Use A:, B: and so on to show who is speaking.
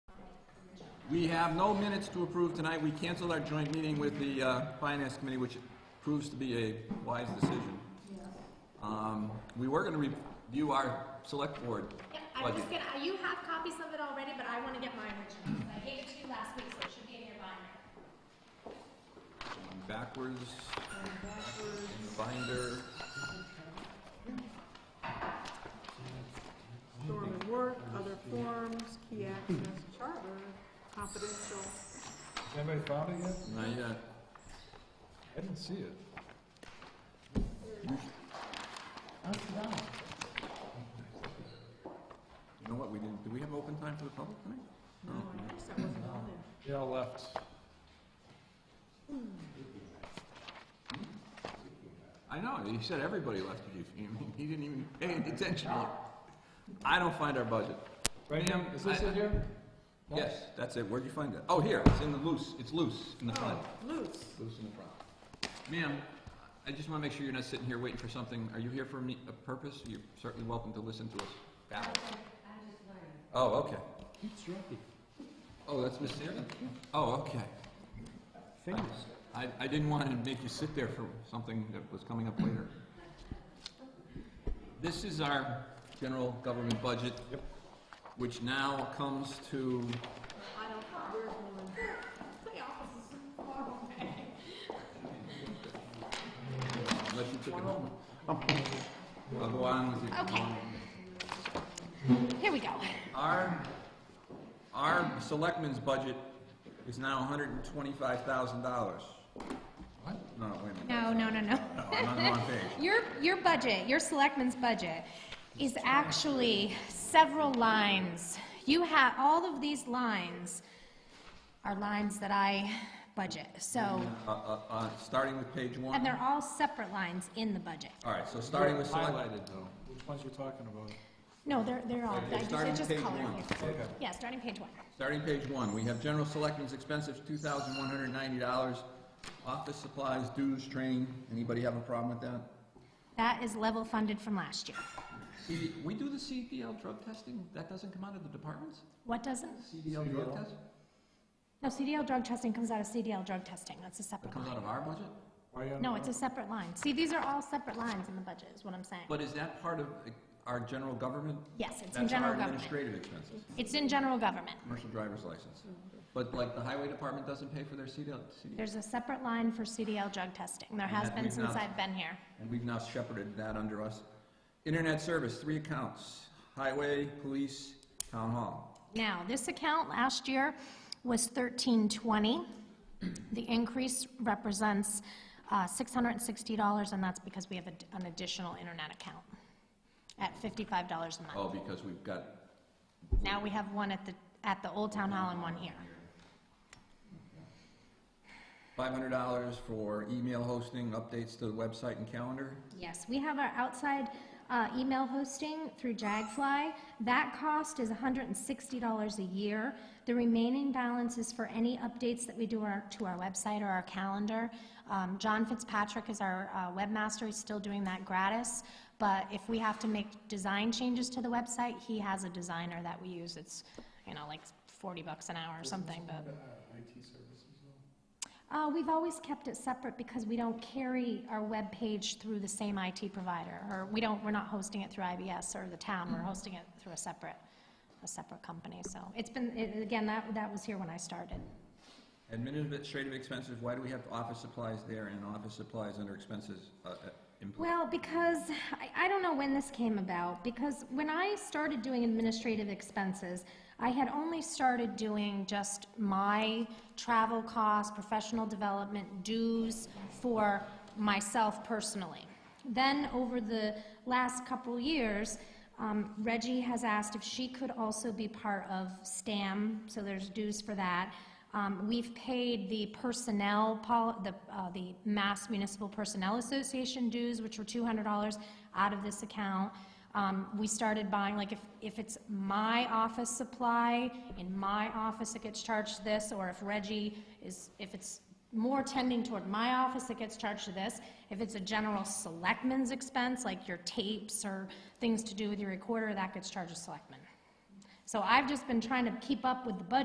A: We have no minutes to approve tonight. We canceled our joint meeting with the uh, Finance Committee, which proves to be a wise decision. Um, We were going to review our Select Board
B: Yeah, I was
A: budget.
B: just gonna, uh, you have copies of it already, but I wanna get mine original. I gave it to you last week, so it should be in your binder.
A: Backwards, in the binder.
C: Norm and work, other forms, key access, charter, confidential.
D: Anybody found it yet?
A: Not yet.
D: I didn't see it.
A: You know what, we didn't, do we have open time for the public tonight?
C: No, Oh, I guess that wasn't on there.
D: They all left.
A: I know, he said everybody left, He- he he didn't even pay any attention. I don't find our budget.
D: Right here,
A: Ma'am,
D: is this
A: I-
D: it here? No?
A: Yes, that's it, where'd you find that? Oh, here, it's in the loose, it's loose in the front.
C: Oh, loose.
A: Loose in the front. Ma'am, I just wanna make sure you're not sitting here waiting for something, are you here for me- a purpose? You're certainly welcome to listen to us babble. Oh, okay.
E: Keeps dropping.
A: Oh, that's Miss Sarah? Oh, okay.
E: Fingers.
A: I, I didn't want to make you sit there for something that was coming up later. This is our general government budget. Which now comes to,
C: I don't, where's one?
B: oh, My office is far away.
A: unless you took it home. I'll go on with your.
B: Okay. Here we go.
A: Our, our selectmen's budget is now hundred and twenty-five thousand dollars.
D: What?
A: No, wait a minute.
B: No, no, no, no.
A: No, I'm on the wrong page.
B: Your, your budget, your selectman's budget is actually several lines. You have, all of these lines are lines that I budget, so,
A: Uh, uh, uh, starting with page one.
B: and they're all separate lines in the budget.
A: All right, so starting with select.
D: Highlighted though. Which ones you talking about?
B: No, they're, they're all,
A: Okay,
B: I just, I
A: starting
B: just
A: page
B: colored
A: one.
B: it.
D: Okay.
B: Yeah, starting page one.
A: Starting page one, we have general selectmen's expenses, two thousand one hundred ninety dollars. Office supplies, dues, training, anybody have a problem with that?
B: That is level funded from last year.
A: See, we do the CDL drug testing, that doesn't come out of the departments?
B: What doesn't?
A: CDL drug test?
B: No, CDL drug testing comes out of CDL drug testing, that's a
A: That
B: separate
A: comes out
B: line.
A: of our budget?
D: Why you on
B: No,
D: the-
B: it's a separate line. See, these are all separate lines in the budget, is what I'm saying.
A: But is that part of uh, our general government?
B: Yes, it's in general
A: That's our
B: government. Mm-hmm.
A: administrative expenses,
B: It's in general government.
A: commercial driver's license.
B: Mm-hmm.
A: But like the highway department doesn't pay for their CDL, CDL.
B: There's a separate line for CDL drug testing. There has
A: that
B: been
A: we've
B: since
A: not-
B: I've been here.
A: and we've now shepherded that under us. Internet service, three accounts, highway, police, town hall.
B: Now, this account last year was 1320. The increase represents uh, $660, and that's because we have a d- an additional internet account at $55 a month.
A: Oh, because we've got,
B: Now we have one at the, at the Old Town Hall and one here.
A: Five hundred dollars for email hosting, updates to the website and calendar.
B: Yes, we have our outside uh, email hosting through Jagfly. That cost is $160 a year. The remaining balance is for any updates that we do our- to our website or our calendar. Um, John Fitzpatrick is our uh, webmaster, he's still doing that gratis, but if we have to make design changes to the website, he has a designer that we use. It's, you know, like 40 bucks an hour or something, but... Uh, we've always kept it separate because we don't carry our web page through the same IT provider, or we don't, we're not hosting it through IBS or the town, we're hosting it through a separate, a separate company, so. It's been, it- again, that, that was here when I started.
A: Administrative expenses, why do we have office supplies there and office supplies under expenses, uh, uh, employee?
B: Well, because, I, I don't know when this came about, because when I started doing administrative expenses, I had only started doing just my travel costs, professional development dues for myself personally. Then, over the last couple years, um, Reggie has asked if she could also be part of STAM, so there's dues for that. Um, We've paid the personnel, pol- the uh, the Mass Municipal Personnel Association dues, which were $200 out of this account. Um, We started buying, like, if if it's my office supply, in my office it gets charged to this, or if Reggie is, if it's more tending toward my office, it gets charged to this. If it's a general selectman's expense, like your tapes or things to do with your recorder, that gets charged to selectmen. So I've just been trying to keep up with the budget